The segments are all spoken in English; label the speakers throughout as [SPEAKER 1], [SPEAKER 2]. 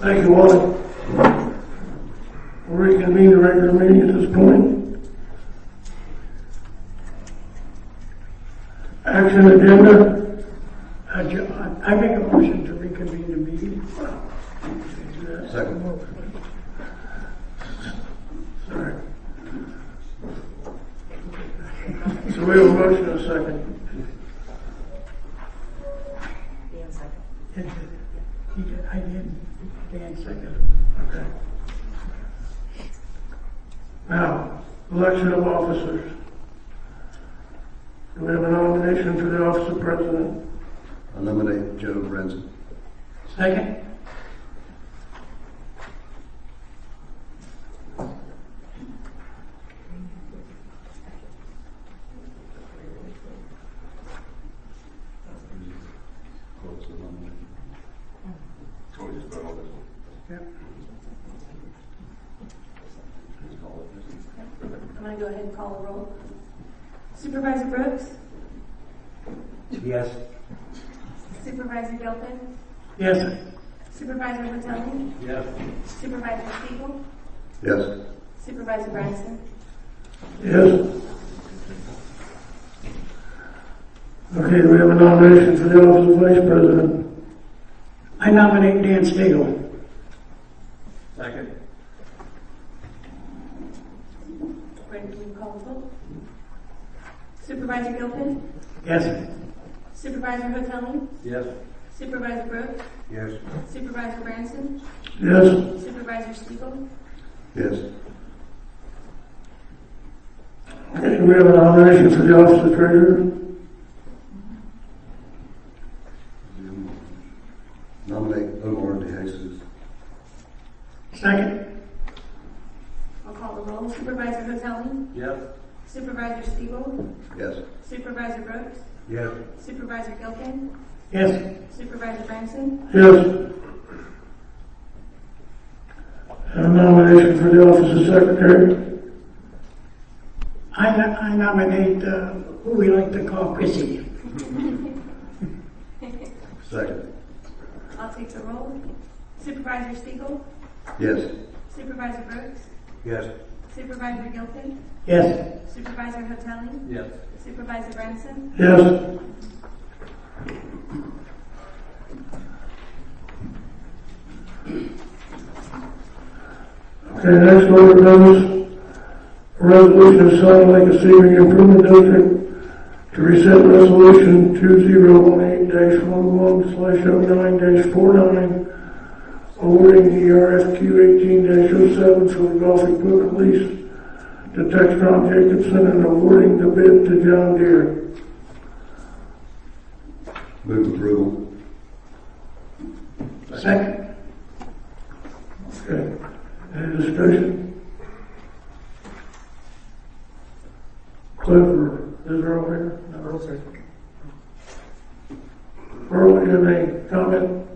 [SPEAKER 1] Thank you all. We'll reconvene the regular meeting at this point. Action agenda. I ju- I make a motion to reconvene the meeting.
[SPEAKER 2] Second.
[SPEAKER 1] Sorry. So we have a motion and a second.
[SPEAKER 3] Dan second.
[SPEAKER 1] He did, he did, I did, Dan seconded, okay. Now, election of officers. Do we have a nomination for the office of president?
[SPEAKER 2] I nominate Joe Renzi.
[SPEAKER 1] Second.
[SPEAKER 3] I'm going to go ahead and call the roll. Supervisor Brooks?
[SPEAKER 4] Yes.
[SPEAKER 3] Supervisor Gilpin?
[SPEAKER 1] Yes.
[SPEAKER 3] Supervisor Maitelli?
[SPEAKER 4] Yes.
[SPEAKER 3] Supervisor Siegel?
[SPEAKER 2] Yes.
[SPEAKER 3] Supervisor Bryson?
[SPEAKER 1] Yes. Okay, do we have a nomination for the office of vice president? I nominate Dan Stegel.
[SPEAKER 4] Second.
[SPEAKER 3] Brenda, will you call the vote? Supervisor Gilpin?
[SPEAKER 1] Yes.
[SPEAKER 3] Supervisor Maitelli?
[SPEAKER 4] Yes.
[SPEAKER 3] Supervisor Brooks?
[SPEAKER 2] Yes.
[SPEAKER 3] Supervisor Branson?
[SPEAKER 1] Yes.
[SPEAKER 3] Supervisor Siegel?
[SPEAKER 2] Yes.
[SPEAKER 1] Okay, do we have a nomination for the office of treasurer?
[SPEAKER 2] Nominate Omar DeJesus.
[SPEAKER 1] Second.
[SPEAKER 3] I'll call the roll. Supervisor Maitelli?
[SPEAKER 4] Yes.
[SPEAKER 3] Supervisor Siegel?
[SPEAKER 2] Yes.
[SPEAKER 3] Supervisor Brooks?
[SPEAKER 4] Yes.
[SPEAKER 3] Supervisor Gilpin?
[SPEAKER 1] Yes.
[SPEAKER 3] Supervisor Branson?
[SPEAKER 1] Yes. A nomination for the office of secretary. I no- I nominate, uh, who we like to call Chrissy.
[SPEAKER 2] Second.
[SPEAKER 3] I'll take the roll. Supervisor Siegel?
[SPEAKER 2] Yes.
[SPEAKER 3] Supervisor Brooks?
[SPEAKER 4] Yes.
[SPEAKER 3] Supervisor Gilpin?
[SPEAKER 1] Yes.
[SPEAKER 3] Supervisor Hotelli?
[SPEAKER 4] Yes.
[SPEAKER 3] Supervisor Branson?
[SPEAKER 1] Yes. Okay, next order of business, resolution of Salt Lake Receiving Improvement District to reset resolution two zero one eight dash one one slash oh nine dash four nine, awarding the E RFQ eighteen dash oh seven for the golf equipment lease to Textron Jacobson and awarding the bid to John Deere.
[SPEAKER 2] Move approval.
[SPEAKER 1] Second. Okay, any discussion? Clifford, is there over here? No, sir. Earl, you have any comment?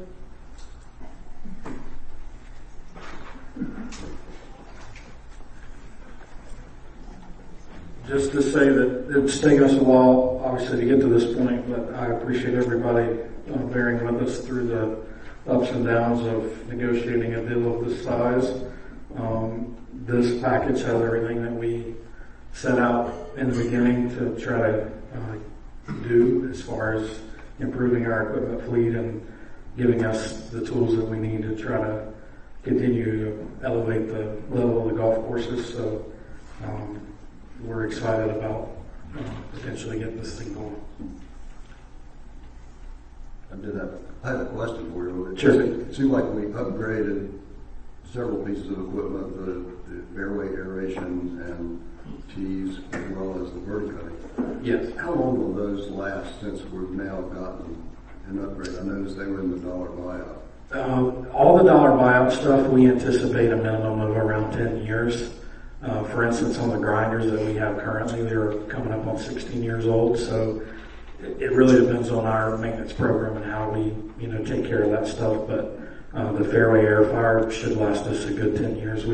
[SPEAKER 5] Just to say that it's taken us a while, obviously, to get to this point, but I appreciate everybody uh, bearing with us through the ups and downs of negotiating a deal of this size. Um, This package has everything that we set out in the beginning to try to uh, do as far as improving our equipment fleet and giving us the tools that we need to try to continue to elevate the level of the golf courses. So um, we're excited about uh, potentially getting this thing going.
[SPEAKER 2] I did have, I had a question for you. It
[SPEAKER 5] Sure.
[SPEAKER 2] seemed- seemed like we upgraded several pieces of equipment, the, the airway aeration and tees, as well as the bird cutting.
[SPEAKER 5] Yes.
[SPEAKER 2] How long will those last since we've now gotten an upgrade? I noticed they were in the dollar buyout.
[SPEAKER 5] Um, all the dollar buyout stuff, we anticipate a minimum of around 10 years. Uh, for instance, on the grinders that we have currently, they're coming up on 16 years old. So it, it really depends on our maintenance program and how we, you know, take care of that stuff. But uh, the fairway air fire should last us a good 10 years.